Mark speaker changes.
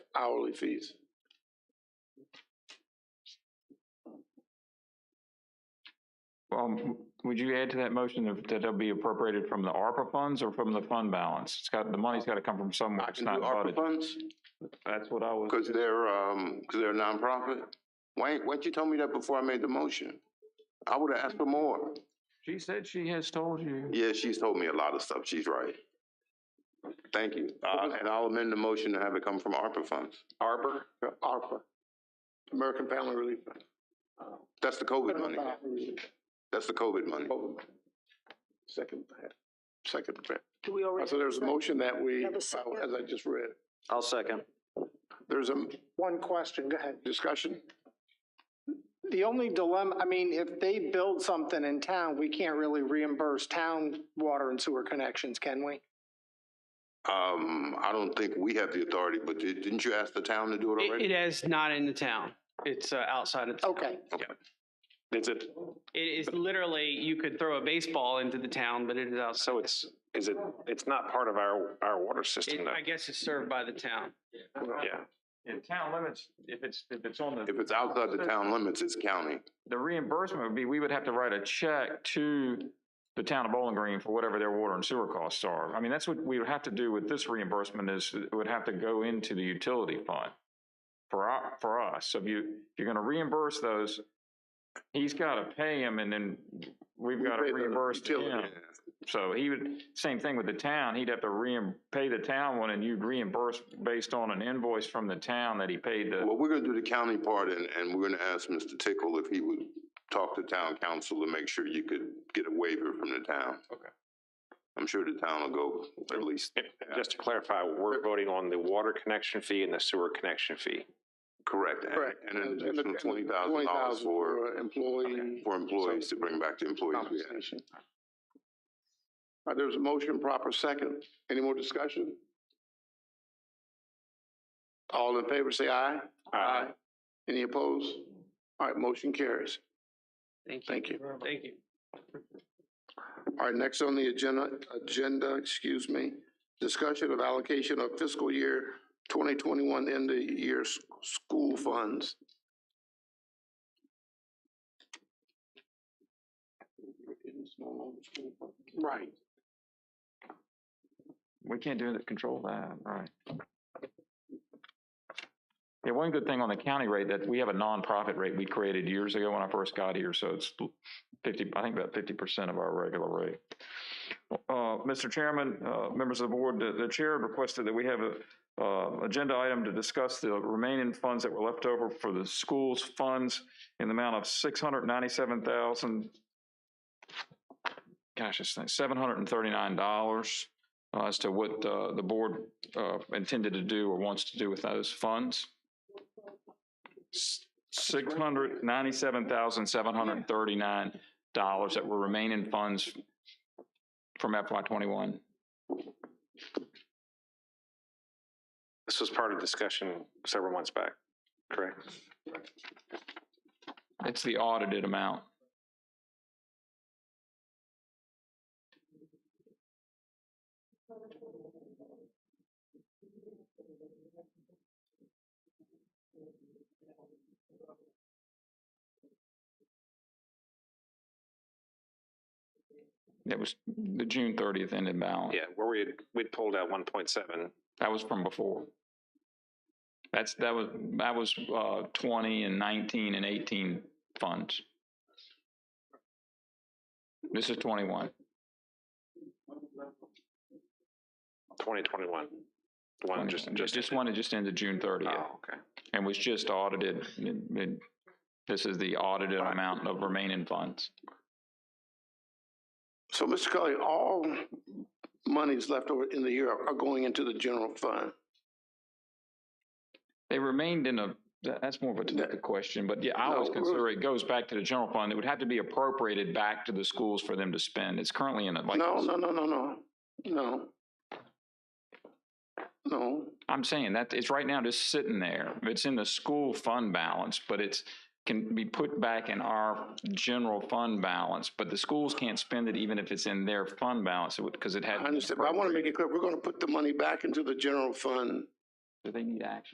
Speaker 1: hourly fees.
Speaker 2: Um, would you add to that motion that that they'll be appropriated from the ARPA funds or from the fund balance? It's got, the money's got to come from somewhere.
Speaker 1: I
Speaker 2: It's
Speaker 1: can do
Speaker 2: not
Speaker 1: ARPA
Speaker 2: budgeted.
Speaker 1: funds,
Speaker 2: That's what I was,
Speaker 1: because they're, um, because they're a nonprofit. Why, ain't- why didn't you tell me that before I made the motion? I would have asked for more.
Speaker 2: she said she has told you.
Speaker 1: Yeah, she's told me a lot of stuff. She's right. Thank you. Uh, and I'll amend the motion to have it come from ARPA funds.
Speaker 2: ARPA?
Speaker 1: Yeah, ARPA, American Family Relief Fund. That's the COVID money. That's the COVID money. Second, second.
Speaker 3: Do we already?
Speaker 1: So there's a motion that we,
Speaker 3: Have a
Speaker 1: as
Speaker 3: second.
Speaker 1: I just read,
Speaker 4: I'll second.
Speaker 1: there's a
Speaker 5: One question, go ahead.
Speaker 1: discussion.
Speaker 5: The only dilemma, I mean, if they build something in town, we can't really reimburse town water and sewer connections, can we?
Speaker 1: Um, I don't think we have the authority, but di- didn't you ask the town to do it
Speaker 4: It, it
Speaker 1: already?
Speaker 4: is not in the town. It's uh, outside of. the town.
Speaker 5: Okay,
Speaker 6: Is it,
Speaker 4: It is literally, you could throw a baseball into the town, but it is outside.
Speaker 6: so it's, is it, it's not part of our, our water system
Speaker 4: It,
Speaker 6: though?
Speaker 4: I guess it's served by the town.
Speaker 6: Yeah.
Speaker 2: In town limits, if it's, if it's on the,
Speaker 1: If it's outside the town limits, it's county.
Speaker 2: the reimbursement would be, we would have to write a check to the town of Bowling Green for whatever their water and sewer costs are. I mean, that's what we would have to do with this reimbursement is it would have to go into the utility fund for our, for us. So if you, if you're going to reimburse those, he's got to pay him and then we've
Speaker 1: We
Speaker 2: got to
Speaker 1: pay the
Speaker 2: reimburse him.
Speaker 1: utility.
Speaker 2: So he would, same thing with the town, he'd have to reim, pay the town one and you'd reimburse based on an invoice from the town that he paid the,
Speaker 1: Well, we're gonna do the county part and, and we're gonna ask Mr. Tickle if he would talk to town council to make sure you could get a waiver from the town.
Speaker 2: Okay.
Speaker 1: I'm sure the town will go at least,
Speaker 6: Just to clarify, we're voting on the water connection fee and the sewer connection fee.
Speaker 1: correct, and-
Speaker 5: Correct.
Speaker 1: and an
Speaker 5: And the- and
Speaker 1: additional twenty
Speaker 5: the
Speaker 1: thousand dollars
Speaker 5: $20,000
Speaker 1: for,
Speaker 5: employee.
Speaker 1: for employees to bring back to employees. we had.
Speaker 5: compensation.
Speaker 1: All right, there's a motion, proper second. Any more discussion? All in favor, say aye.
Speaker 6: Uh,
Speaker 1: Any opposed? All right, motion carries.
Speaker 4: Thank you.
Speaker 1: Thank you.
Speaker 4: Thank you.
Speaker 1: All right, next on the agenda, agenda, excuse me, discussion of allocation of fiscal year twenty twenty-one end of year s- school funds.
Speaker 5: Right.
Speaker 2: we can't do that, control that, right? Yeah, one good thing on the county rate that we have a nonprofit rate we created years ago when I first got here, so it's fifty, I think about fifty percent of our regular rate. Uh, Mr. Chairman, uh, members of the board, the, the chair requested that we have a, uh, agenda item to discuss the remaining funds that were left over for the schools funds in the amount of six hundred ninety-seven thousand gosh, it's like seven hundred and thirty-nine dollars uh, as to what uh, the board uh, intended to do or wants to do with those funds. Six hundred ninety-seven thousand seven hundred thirty-nine dollars that were remaining funds from FY twenty-one.
Speaker 6: this was part of discussion several months back, correct?
Speaker 2: It's the audited amount. That was the June thirtieth ended balance.
Speaker 6: Yeah, where we had, we'd pulled out one point seven.
Speaker 2: That was from before. That's, that was, that was, uh, twenty and nineteen and eighteen funds. This is twenty-one.
Speaker 6: 2021. The one just, just.
Speaker 2: Just one that just ended June
Speaker 6: Oh,
Speaker 2: thirtieth
Speaker 6: okay.
Speaker 2: and was just audited. It- it- This is the audited amount of remaining funds.
Speaker 1: So, Mr. Cully, all monies left over in the year are going into the general fund.
Speaker 2: They remained in a, that- that's more of a technical question, but yeah, I always
Speaker 1: No,
Speaker 2: consider it goes back to the general fund. It would have to be appropriated back to the schools for them to spend. It's currently in a, like.
Speaker 1: No, no, no, no, no, no. No,
Speaker 2: I'm saying that it's right now just sitting there. It's in the school fund balance, but it's can be put back in our general fund balance, but the schools can't spend it even if it's in their fund balance because it
Speaker 1: I
Speaker 2: had.
Speaker 1: understand, but I want to make it clear, we're going to put the money back into the general fund
Speaker 2: Do they need action?